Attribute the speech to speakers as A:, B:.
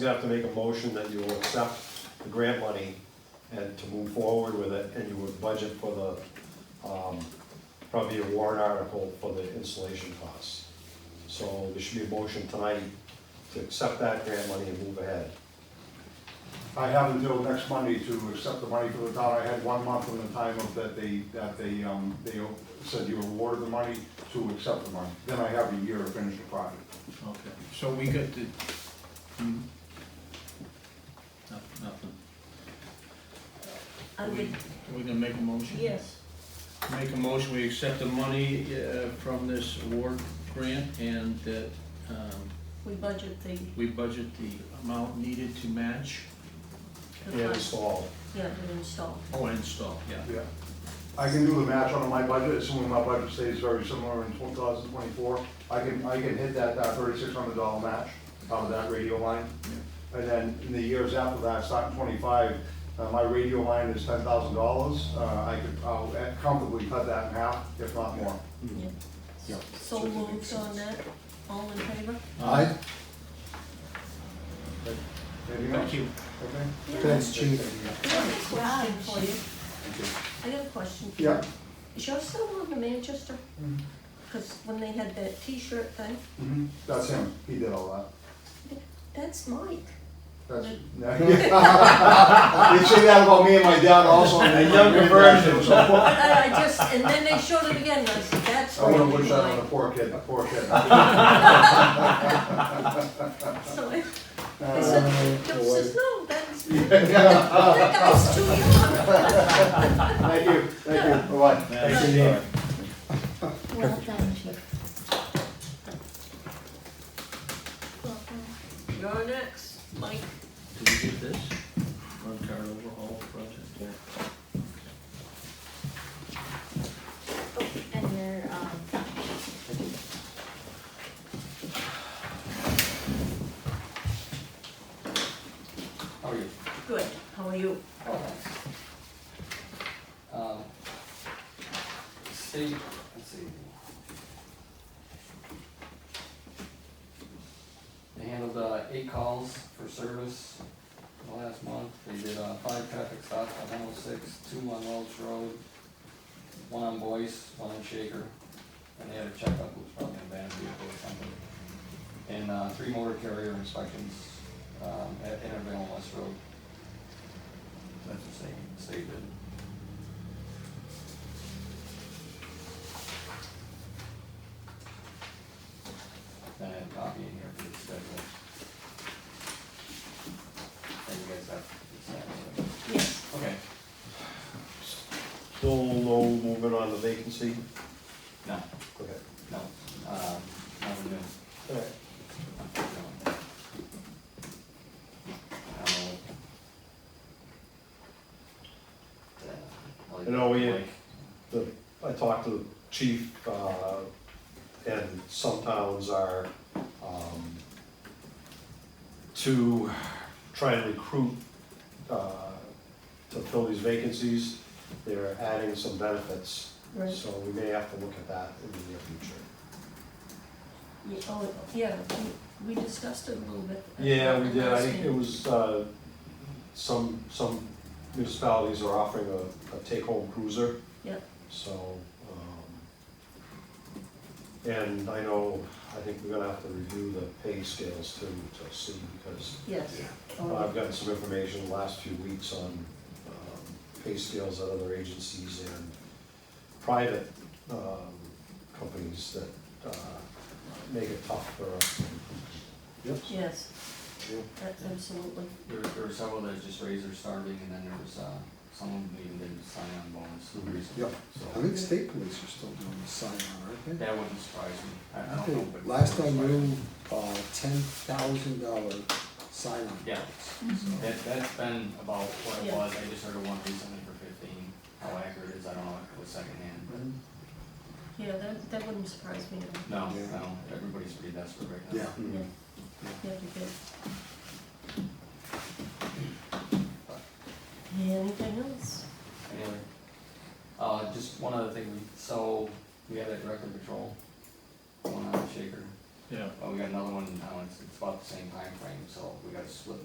A: You have to make a motion that you will accept the grant money and to move forward with it, and you would budget for the, um, probably a warrant article for the installation costs. So there should be a motion tonight to accept that grant money and move ahead.
B: I have until next Monday to accept the money for the town. I had one month from the time of that they, that they, um, they said you awarded the money to accept the money. Then I have a year to finish the project.
C: Okay, so we got the, hmm. No, nothing.
D: I
C: We,
D: would,
C: we gonna make a motion?
D: Uh, yes,
C: Make a motion, we accept the money, uh, from this award grant and that, um,
D: we budget the,
C: we budget the amount needed to match.
D: the
A: And
D: cost,
A: install.
D: yeah, to install.
C: Oh, and install, yeah.
B: Yeah. I can do the match on my budget, assuming my budget stays very similar in two thousand twenty-four. I can, I can hit that, that thirty-six hundred dollar match out of that radio line. And then in the years after that, starting twenty-five, uh, my radio line is ten thousand dollars. Uh, I could, I'll comfortably cut that in half, if not more.
D: Yeah.
B: Yeah.
D: So moved on that, all in favor?
C: Uh,
B: Anything else?
C: Thank you.
B: Okay.
E: Thanks, chief.
D: I got a question for you, I got a question. for you.
B: Yeah.
D: Is yours still on the Manchester?
B: Mhm.
D: Because when they had that T-shirt thing,
B: Mhm. That's him, he did all
D: that's Mike.
B: that. That's, they say that about me and my dad also.
C: A younger version.
B: So poor-
D: And I just, and then they showed it again, and I said, that's
B: I wanna wish
D: really
B: that on a
D: Mike.
B: poor kid, a poor kid.
D: So I I
B: Uh,
D: said, Joe says, no, that's, that
B: yeah.
D: guy's too young.
B: Thank you, thank you, bye-bye.
C: Thanks,
F: Well done, Chief. Well done.
D: You're next, Mike.
C: Do we get this? Run card overhaul project.
F: And your, um,
B: How
G: Oh,
B: are you?
D: Good, how are you?
G: Um, State, let's see. They handled uh, eight calls for service in the last month. They did uh, five traffic stops on 106, two on Welch Road, one on Boyce, one on Shaker, and they had a checkup, which was probably an abandoned vehicle or something. And uh, three motor carrier inspections um, at Intervale and West Road. That's the same, state did. Then I have a copy in here for the schedule. And you guys have the same,
D: Yes,
G: so- okay,
A: Still no movement on the vacancy?
G: no,
A: Okay.
G: no, uh, nothing new,
A: All right.
G: no. I'll- Yeah, I'll leave
A: You know, we-
G: it blank.
A: the, I talked to the chief, uh, and some towns are, um, to try and recruit, uh, to fill these vacancies, they're adding some benefits.
D: right.
A: So we may have to look at that in the near future.
D: Yeah, oh, yeah, we- we discussed it a little bit. at
A: Yeah, we
D: the
A: did, I
D: last
A: think it
D: meeting.
A: was, uh, some, some municipalities are offering a, a take-home cruiser.
D: Yep.
A: So, um, and I know, I think we're gonna have to review the pay scales too, to see, because
D: Yes. Oh,
A: I've gotten some information the last few weeks on, um, pay scales at other agencies and private, um, companies that, uh, make it tough for us.
D: Yes,
B: Yeah.
D: that's absolutely.
G: There, there were several that just raised their starting, and then there was, uh, someone who even didn't sign on bonus recently,
E: Yep. I
G: so,
E: think state police are still doing the sign on, aren't they?
G: that wouldn't surprise me, I, I
E: I
G: don't know.
E: think
G: but-
E: last I knew, uh, ten thousand dollar sign on.
G: Yeah.
F: um,
G: That, that's been about what it
D: Yeah.
G: was, I just heard of one recently for fifteen, how accurate it is, I don't know, it was secondhand.
D: Yeah, that, that wouldn't surprise me at all.
G: No,
E: Yeah.
G: no, everybody's pretty desperate right now.
E: Yeah,
A: Hmm.
D: Yeah, yeah, you did. Anything else?
G: Anyway, uh, just one other thing, we, so, we have that director patrol going on at Shaker,
C: yeah.
G: But we got another one in town, it's, it's about the same timeframe, so we gotta split